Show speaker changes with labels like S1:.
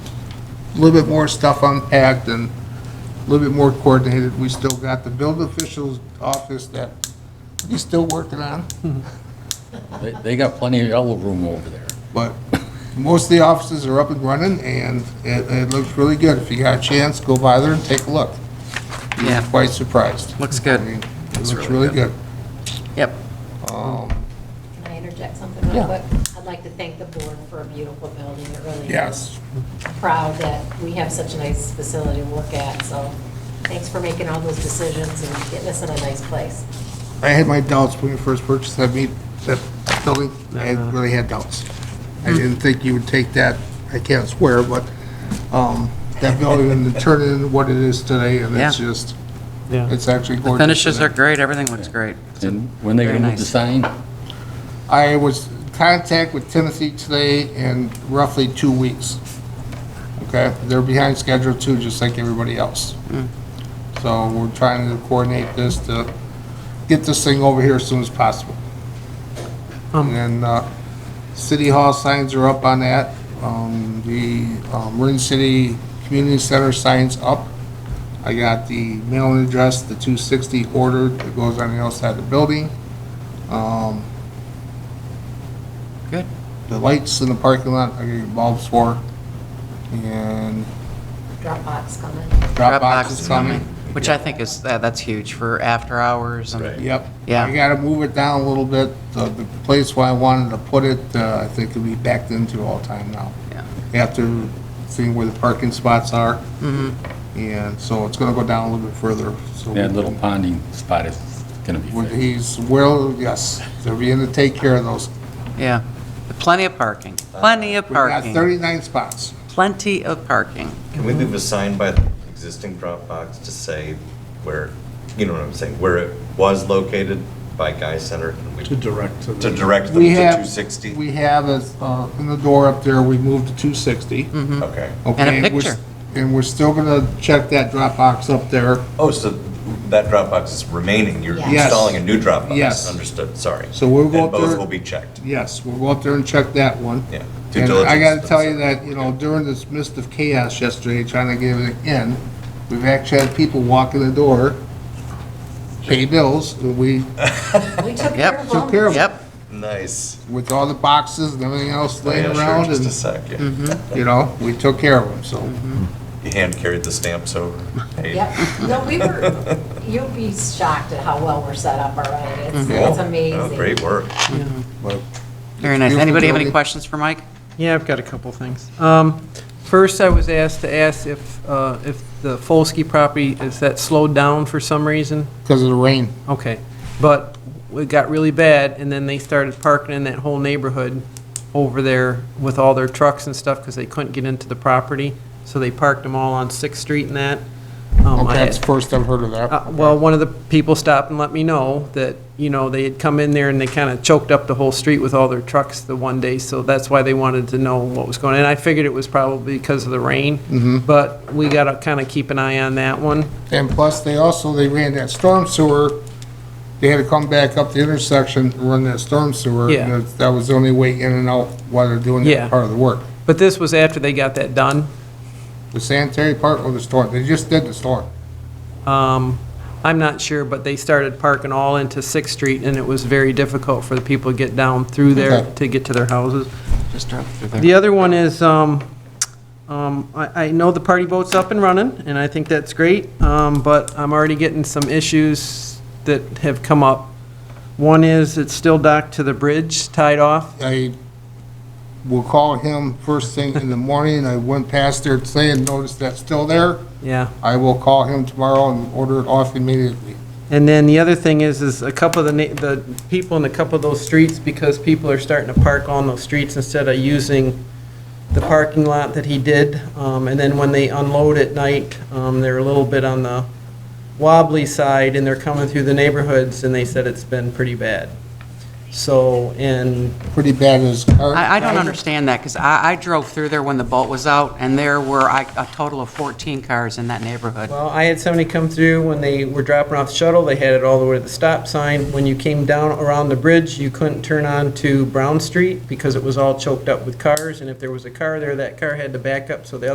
S1: a little bit more stuff unpacked and a little bit more coordinated. We still got the building officials office that he's still working on,
S2: They, they got plenty of yellow room over there.
S1: but most of the offices are up and running and it, it looks really good. If you got a chance, go by there and take a look. You'll
S3: Yeah.
S1: be quite surprised.
S3: Looks
S1: I
S3: good.
S1: mean, It looks really good.
S3: Yep.
S4: Can I interject something real quick? I'd like to thank the board for a beautiful building. It really is.
S1: Yes.
S4: Proud that we have such a nice facility to look at, so thanks for making all those decisions and getting us in a nice place.
S1: I had my doubts when we first purchased that meat, that building, I
S3: Uh-huh.
S1: had- really had doubts.
S3: Hmm.
S1: I didn't think you would take that, I can't swear, but, um, that building and turn it into what it is today, and it's
S3: Yeah.
S1: just,
S5: Yeah.
S1: it's actually gorgeous.
S3: Finishes
S1: in
S3: are
S1: there.
S3: great, everything looks great.
S2: And when they
S3: Very
S2: gonna move the
S3: nice.
S2: sign?
S1: I was in contact with Tennessee today in roughly two weeks. Okay, they're behind schedule too, just like everybody else. So we're trying to coordinate this to get this thing over here as soon as possible. And then, uh, City Hall signs are up on that. Um, the, um, Marin City Community Center signs up. I got the mailing address, the two sixty ordered, that goes on the outside of the building. Um,
S3: Good.
S1: the lights in the parking lot, I get bulbs for, and
S4: Dropbox coming.
S1: drop box is coming.
S3: Which I think is, that- that's huge for after hours and,
S1: Yep.
S3: Yeah.
S1: I gotta move it down a little bit, the, the place where I wanted to put it, uh, I think it'll be backed into all time now.
S3: yeah,
S1: After seeing where the parking spots are.
S3: Mm-hmm.
S1: And so it's gonna go down a little bit further, so.
S2: That little ponding spot is gonna be
S1: When
S2: fixed.
S1: he's, well, yes, they're beginning to take care of those.
S3: yeah. But Plenty of parking, plenty of
S1: We got
S3: parking,
S1: thirty-nine spots.
S3: plenty of parking.
S6: Can we leave a sign by the existing Dropbox to say where, you know what I'm saying, where it was located by Guy Center? Can we-
S5: To direct to the.
S6: To direct them
S1: We
S6: to
S1: have-
S6: 260?
S1: We have, as, uh, in the door up there, we moved to two sixty.
S6: Okay.
S3: And a
S1: Okay, we're s-
S3: picture.
S1: And we're still gonna check that Dropbox up there,
S6: Oh, so that Dropbox is remaining, you're
S4: Yes.
S6: installing a new Dropbox?
S1: Yes.
S6: Understood, sorry.
S1: So we'll go up
S6: And
S1: there-
S6: both will be checked,
S1: yes, we'll go up there and check that one.
S6: yeah. Due
S1: And I gotta
S6: diligence.
S1: tell you that, you know, during this mist of chaos yesterday, trying to get everything in, we've actually had people walk in the door, pay bills, and we,
S4: We took
S3: Yep.
S4: care of
S1: Took care
S4: all
S1: of-
S3: Yep,
S6: Nice.
S1: with all the boxes and everything else
S6: Oh, Yeah,
S1: laying
S6: sure,
S1: around,
S6: Just a
S1: and, Mm-hmm.
S6: sec, yeah.
S1: you know, we took care of them, so.
S6: You hand carried the stamps over. Hey,
S4: Yep. No, we were, you'd be shocked at how well we're set up already. It's-
S1: Mm-hmm.
S6: cool.
S4: It's
S6: Oh,
S4: amazing.
S6: Great work.
S1: but-
S3: very nice.
S1: Beautiful
S3: Anybody have any
S1: building.
S3: questions for Mike?
S5: Yeah, I've got a couple things. Um, First, I was asked to ask if, uh, if the Folsky property, is that slowed down for some reason?
S1: Because of the rain.
S5: Okay, but it got really bad, and then they started parking in that whole neighborhood over there with all their trucks and stuff, because they couldn't get into the property, so they parked them all on Sixth Street and that.
S3: Oh,
S5: Um,
S1: Okay,
S5: I-
S1: that's the first I've heard of
S5: uh,
S1: that.
S5: Well, one of the people stopped and let me know that, you know, they had come in there and they kind of choked up the whole street with all their trucks the one day, so that's why they wanted to know what was going on. And I figured it was probably because of the rain, but we got to kind of keep an eye on that one.
S1: And plus, they also, they ran that storm sewer, they had to come back up the intersection and run that storm sewer. and
S5: Yeah.
S1: that's- That was the only way in and out while they're doing
S5: Yeah.
S1: that part of the work.
S5: But this was after they got that done.
S1: The sanitary part or the storm, they just did the storm.
S5: Um, I'm not sure, but they started parking all into Sixth Street, and it was very difficult for the people to get down through there
S1: Okay.
S5: to get to their houses.
S3: Just drop through there.
S5: The other one is, um, um, I, I know the party boat's up and running, and I think that's great, um, but I'm already getting some issues that have come up. One is it's still docked to the bridge, tied off.
S1: I will call him first thing in the morning. I went past there today and noticed that's still there.
S5: Yeah.
S1: I will call him tomorrow and order it off immediately.
S5: And then the other thing is, is a couple of the, na- the people in a couple of those streets, because people are starting to park on those streets instead of using the parking lot that he did, um, and then when they unload at night, um, they're a little bit on the wobbly side, and they're coming through the neighborhoods, and they said it's been pretty bad. So, and
S1: Pretty bad as car.
S3: I, I don't understand that, because I, I drove through there when the boat was out, and there were I- a total of 14 cars in that neighborhood.
S5: Well, I had somebody come through when they were dropping off the shuttle, they had it all the way to the stop sign. When you came down around the bridge, you couldn't turn on to Brown Street because it was all choked up with cars, and if there was a car there, that car had to back up, so the